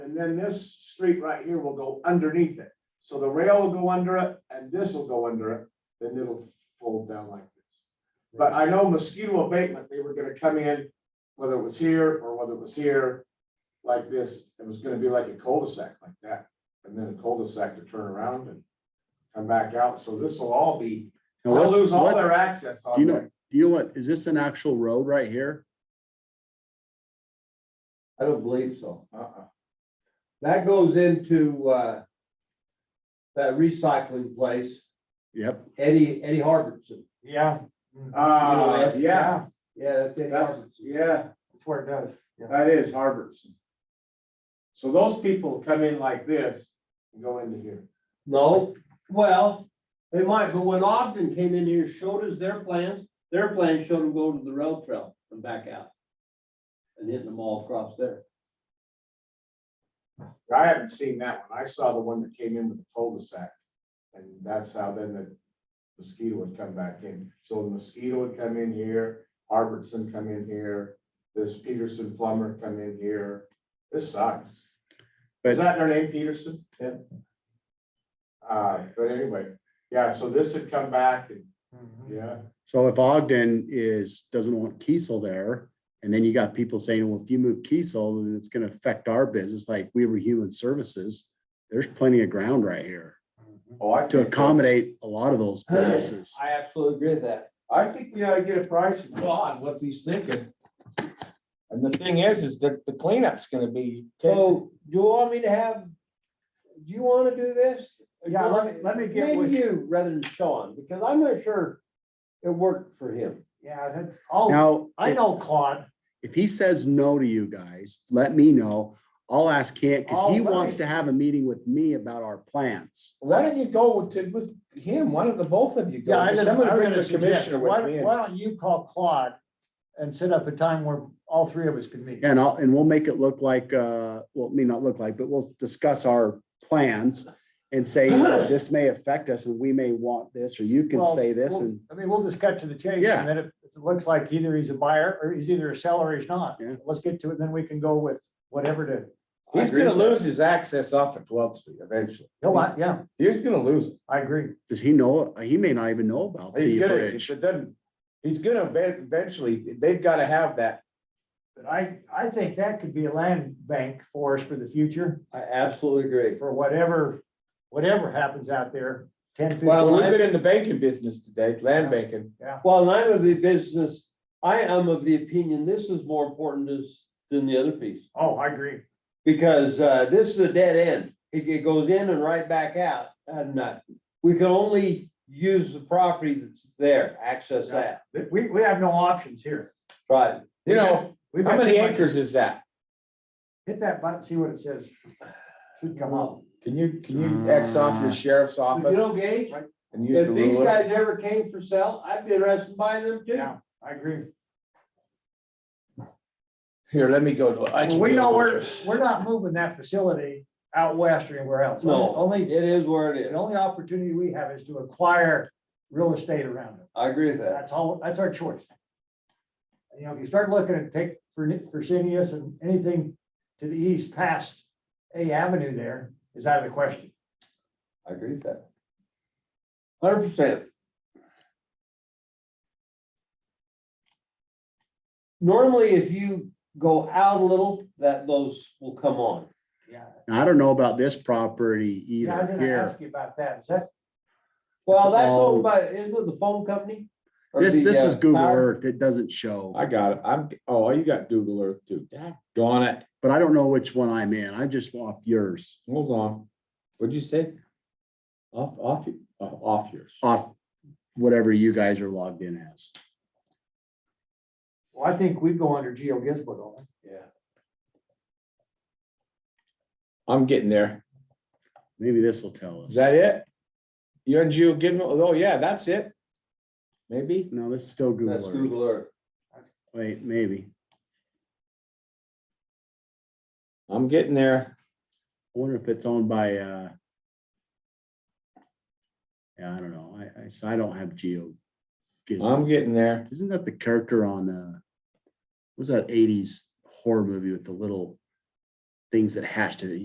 then this street right here will go underneath it. So the rail will go under it and this will go under it, then it'll fold down like this. But I know mosquito abatement, they were gonna come in, whether it was here or whether it was here, like this, it was gonna be like a cul-de-sac like that. And then a cul-de-sac to turn around and come back out. So this will all be, Now, they'll what's- lose all what- their access Do on you there. know, do you know what, is this an actual road right here? I don't believe so. Uh-uh. That goes into, uh, that recycling place, Yep, Eddie, Eddie Harbison. Yeah, Uh, yeah, Yeah, that's Eddie that's, Harbison. yeah. that's where it does. Yeah. That is Harbison. So those people come in like this and go into here. No, well, they might, but when Ogden came in here, showed us their plans, their plans showed them go to the rail trail and back out. And hitting them all across there. I haven't seen that one. I saw the one that came in with the cul-de-sac. And that's how then the mosquito would come back in. So the mosquito would come in here, Harbison come in here, this Peterson plumber come in here. This sucks. Is that their name, Peterson? Yeah. Uh, but anyway, yeah, so this had come back and, Mm-hmm. yeah, so if Ogden is, doesn't want Kiesel there, and then you got people saying, well, if you move Kiesel, then it's gonna affect our business, like we were human services. There's plenty of ground right here Mm-hmm. oh, I. to think that's- accommodate a lot of those businesses. I absolutely agree with that. I think we ought to get a price from Ron, what he's thinking. And the thing is, is that the cleanup's gonna be. So, do you want me to have, do you wanna do this? Yeah, let me, let me get Maybe with, you rather than Sean, because I'm not sure it worked for him. yeah, that's, oh, Now, I know Claude. if he says no to you guys, let me know. I'll ask Kent, because he All right. wants to have a meeting with me about our plans. Why don't you go with, with him, one of the both of you go? Yeah, I was- I'm gonna I was bring gonna the suggest, commissioner why, with me. why don't you call Claude and set up a time where all three of us can meet? And I'll, and we'll make it look like, uh, well, may not look like, but we'll discuss our plans and say, you know, this may affect us and we may want this, or you can Well, say this we'll- and, I mean, we'll just cut to the chase, Yeah. and then if if it looks like either he's a buyer, or he's either a seller or he's not. Yeah. Let's get to it, then we can go with whatever to, He's gonna lose his access off of Twelfth Street eventually. he'll, want- yeah, He's gonna lose it. I agree. does he know, he may not even know about He's the gonna, if bridge. it doesn't, he's gonna ev- eventually, they've gotta have that. But I, I think that could be a land bank for us for the future, I absolutely agree. for whatever, whatever happens out there, 10, 15 Well, Well, I- we've been in the banking business today, land banking. Well, and I'm of the business, I am of the opinion this is more important as- than the other piece. Oh, I agree. Because uh, this is a dead end. It it goes in and right back out. And uh, we can only use the property that's there, access Yeah. that. That We, we have no options here. Right. You know, We've how got many too much- acres is that? Hit that button, see what it says. Should come up. Can you, can you X off Uh, your sheriff's You know, office Gage, and use the if these ruler? guys ever came for sale, I'd be interested in buying them too. Yeah, I agree. Here, let me go. to- I can Well, We go know to- we're, we're not moving that facility out west or anywhere else. No. It Only, is where it the is. only opportunity we have is to acquire real estate around it. I agree with that. That's all, that's our choice. You know, if you start looking at take for Fresenius and anything to the east past A Avenue there is out of the question. I agree with that. Hundred percent. Normally, if you go out a little, that those will come on. Yeah. And I don't know about this property Yeah, I was either gonna here. ask you about that. Is that, Well, that's all- owned by, isn't it the phone company? Or This, the, this uh, is Google power? Earth. It doesn't show, I got it. I'm, oh, you got Google Earth too. Gone it. but I don't know which one I'm in. I'm just off yours, Hold on. What'd you say? Off, off, y- oh, off yours. off whatever you guys are logged in as. well, I think we'd go under Geo Gizmo, don't we? I'm getting there. Maybe this will tell Is us. that it? You and Geo Gizmo? Oh, yeah, that's it. Maybe. No, this is still That's Google Earth. Google Earth. Wait, maybe. I'm getting there. I wonder if it's owned by, uh. Yeah, I don't know. I, I, so I don't have Geo. I'm Gizmo. getting there. Isn't that the character on, uh, what was that eighties horror movie with the little things that hatched it?